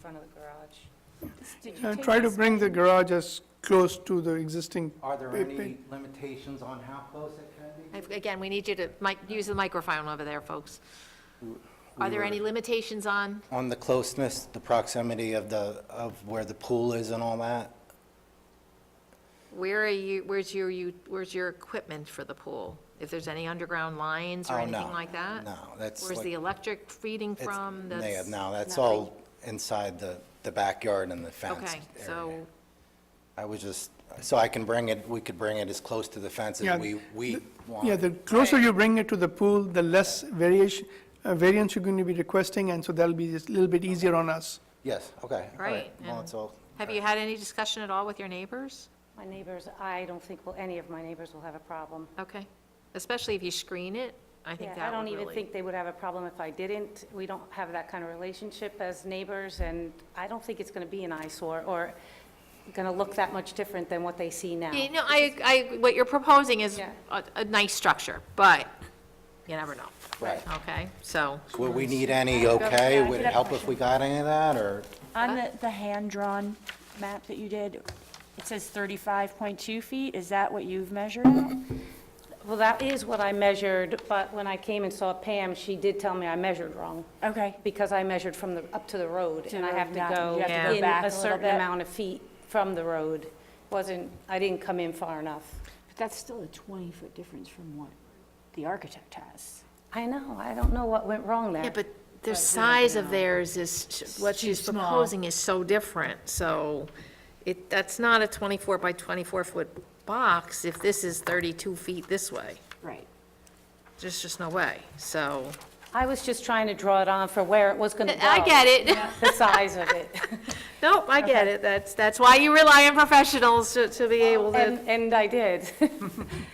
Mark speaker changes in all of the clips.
Speaker 1: front of the garage. Did you
Speaker 2: And
Speaker 1: take
Speaker 2: Uh, try to
Speaker 1: this-
Speaker 2: bring the garage as close to the existing,
Speaker 3: Are there
Speaker 2: Big,
Speaker 3: any
Speaker 2: big.
Speaker 3: limitations on how close it can be?
Speaker 4: I've- Again, we need you to mic, use the microphone over there, folks. Are there
Speaker 3: were-
Speaker 4: any limitations on,
Speaker 3: On the closeness, the proximity of the, of where the pool is and all that?
Speaker 4: where are you, where's your, you, where's your equipment for the pool? If there's any underground lines or
Speaker 3: Oh, no.
Speaker 4: anything like that?
Speaker 3: No, that's
Speaker 4: Where's
Speaker 3: like-
Speaker 4: the electric feeding
Speaker 3: It's-
Speaker 4: from?
Speaker 3: they
Speaker 4: That's
Speaker 3: have- No, that's
Speaker 4: nothing.
Speaker 3: all inside the, the backyard and the fenced
Speaker 4: Okay,
Speaker 3: area.
Speaker 4: so,
Speaker 3: I was just, so I can bring it, we could bring it as close to the fence
Speaker 2: Yeah,
Speaker 3: as we, we want.
Speaker 2: yeah, the closer you bring it to the pool, the less variation, uh, variance you're going to be requesting, and so that'll be just a little bit easier on us.
Speaker 3: Yes, okay. all
Speaker 4: right.
Speaker 3: Well,
Speaker 4: and
Speaker 3: it's all.
Speaker 4: Have you had any discussion at all with your neighbors?
Speaker 1: My neighbors, I don't think, will any of my neighbors will have a problem.
Speaker 4: Okay, especially if you screen it, I think
Speaker 1: Yeah,
Speaker 4: that would
Speaker 1: I don't even
Speaker 4: really-
Speaker 1: think they would have a problem if I didn't. We don't have that kind of relationship as neighbors, and I don't think it's going to be an eyesore or going to look that much different than what they see now.
Speaker 4: Yeah, no, I, I, what you're proposing is
Speaker 1: Yeah.
Speaker 4: a, a nice structure, but you never know.
Speaker 3: Right.
Speaker 4: Okay, so,
Speaker 3: Would we need any, okay?
Speaker 5: Yeah, I
Speaker 3: Would
Speaker 5: did
Speaker 3: it
Speaker 5: have a
Speaker 3: help if we got any of that, or?
Speaker 5: On the, the hand-drawn map that you did, it says 35.2 feet, is that what you've measured at?
Speaker 6: Mm-hmm.
Speaker 1: Well, that is what I measured, but when I came and saw Pam, she did tell me I measured wrong.
Speaker 5: Okay,
Speaker 1: because I measured from the, up to the road,
Speaker 5: To
Speaker 1: and I
Speaker 5: the-
Speaker 1: have to
Speaker 5: yeah,
Speaker 1: go
Speaker 5: you have to go
Speaker 1: in
Speaker 5: back a
Speaker 1: a
Speaker 5: little
Speaker 1: certain
Speaker 5: bit.
Speaker 1: amount of feet from the road. Wasn't, I didn't come in far enough.
Speaker 6: But that's still a 20-foot difference from what the architect has.
Speaker 1: I know, I don't know what went wrong
Speaker 4: yeah,
Speaker 1: there.
Speaker 4: but the size of theirs is, what
Speaker 6: too
Speaker 4: she's
Speaker 6: small.
Speaker 4: proposing is so different, so it, that's not a 24 by 24 foot box if this is 32 feet this way.
Speaker 6: Right.
Speaker 4: There's just no way, so.
Speaker 1: I was just trying to draw it on for where it was going to go.
Speaker 4: I get it.
Speaker 1: The size of it.
Speaker 4: Nope, I get it. That's, that's why you rely on professionals to, to be able to.
Speaker 1: And, and I did.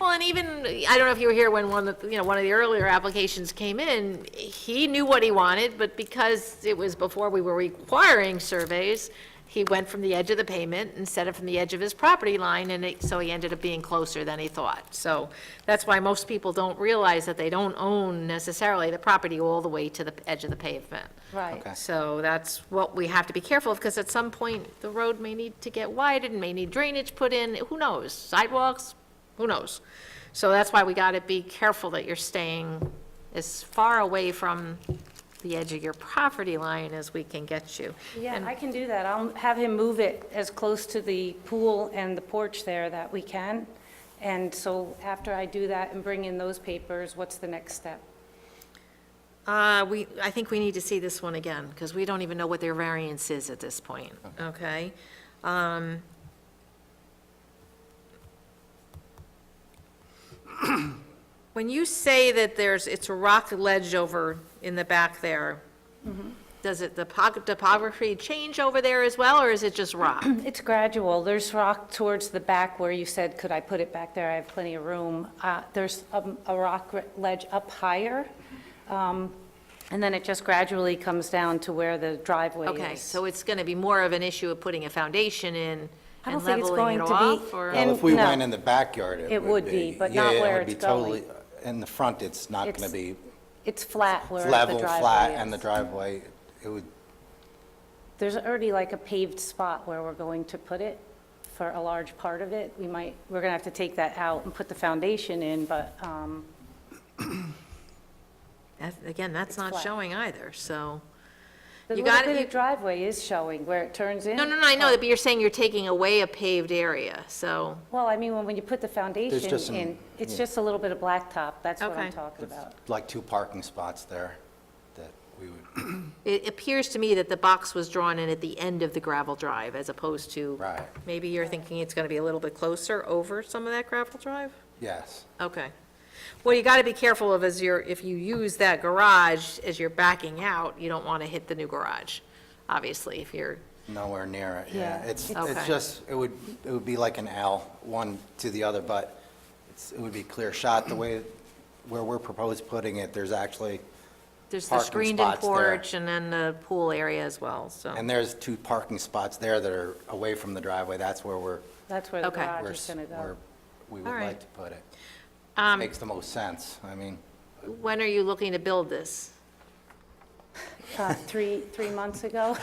Speaker 4: Well, and even, I don't know if you were here when one, of the- you know, one of the earlier applications came in, he knew what he wanted, but because it was before we were requiring surveys, he went from the edge of the pavement instead of from the edge of his property line, and it, so he ended up being closer than he thought. So that's why most people don't realize that they don't own necessarily the property all the way to the edge of the pavement.
Speaker 1: Right.
Speaker 3: Okay.
Speaker 4: So that's what we have to be careful of, because at some point, the road may need to get widened, may need drainage put in, who knows? Sidewalks, who knows? So that's why we got to be careful that you're staying as far away from the edge of your property line as we can get you.
Speaker 1: Yeah, I can do that. I'll have him move it as close to the pool and the porch there that we can. And so after I do that and bring in those papers, what's the next step?
Speaker 4: Uh, we, I think we need to see this one again, because we don't even know what their variance is at this point, okay? Um, When you say that there's, it's a rock ledge over in the back there,
Speaker 1: Mm-hmm.
Speaker 4: does it, the pog- topography change over there as well, or is it just rock?
Speaker 1: It's gradual. There's rock towards the back where you said, could I put it back there? I have plenty of room. Uh, There's um, a rock re- ledge up higher, um, and then it just gradually comes down to where the driveway is.
Speaker 4: Okay, so it's going to be more of an issue of putting a foundation in
Speaker 1: I don't
Speaker 4: and
Speaker 1: think it's
Speaker 4: leveling
Speaker 1: going
Speaker 4: it
Speaker 1: to be-
Speaker 4: off, or?
Speaker 3: Well,
Speaker 1: And
Speaker 3: if we
Speaker 1: no.
Speaker 3: went in the backyard, it would be.
Speaker 1: It would be, but
Speaker 3: Yeah,
Speaker 1: not
Speaker 3: it
Speaker 1: where
Speaker 3: would be
Speaker 1: it's going.
Speaker 3: totally- In the front, it's not going
Speaker 1: It's
Speaker 3: to be
Speaker 1: It's flat where the driveway
Speaker 3: level,
Speaker 1: is.
Speaker 3: flat, and the driveway, it would,
Speaker 1: There's already like a paved spot where we're going to put it for a large part of it. We might, we're going to have to take that out and put the foundation in, but um,
Speaker 4: That- Again, that's not
Speaker 1: flat.
Speaker 4: showing either, so.
Speaker 1: the
Speaker 4: You
Speaker 1: little
Speaker 4: got it,
Speaker 1: bit
Speaker 4: you-
Speaker 1: of driveway is showing where it turns in.
Speaker 4: No, no, no, I know that, but you're saying you're taking away a paved area, so,
Speaker 1: Well, I mean, when, when you put the
Speaker 3: just
Speaker 1: foundation
Speaker 3: some-
Speaker 1: in, it's just a little bit of blacktop, that's what
Speaker 4: Okay.
Speaker 1: I'm talking about.
Speaker 3: like two parking spots there that we would,
Speaker 4: it appears to me that the box was drawn in at the end of the gravel drive as opposed to.
Speaker 3: Right.
Speaker 4: Maybe you're thinking it's gonna be a little bit closer over some of that gravel drive?
Speaker 3: yes.
Speaker 4: Okay. Well, you gotta be careful of as you're, if you use that garage as you're backing out, you don't wanna hit the new garage, obviously, if you're,
Speaker 3: Nowhere near it, yeah.
Speaker 1: Yeah.
Speaker 3: It's,
Speaker 4: Okay.
Speaker 3: it's just, it would, it would be like an L, one to the other, but it's, it would be clear shot the way, where we're proposed putting it, there's actually,
Speaker 4: there's the
Speaker 3: Parking
Speaker 4: screened-in
Speaker 3: spots there.
Speaker 4: porch and then the pool area as well, so.
Speaker 3: and there's two parking spots there that are away from the driveway, that's where we're,
Speaker 1: That's where the
Speaker 4: Okay.
Speaker 3: we're,
Speaker 1: garage is
Speaker 3: s-
Speaker 1: gonna go.
Speaker 3: we're- we
Speaker 4: All
Speaker 3: would
Speaker 4: right.
Speaker 3: like to put it. Makes the most sense, I mean,
Speaker 4: When are you looking to build this?
Speaker 1: Uh, Three, three months ago.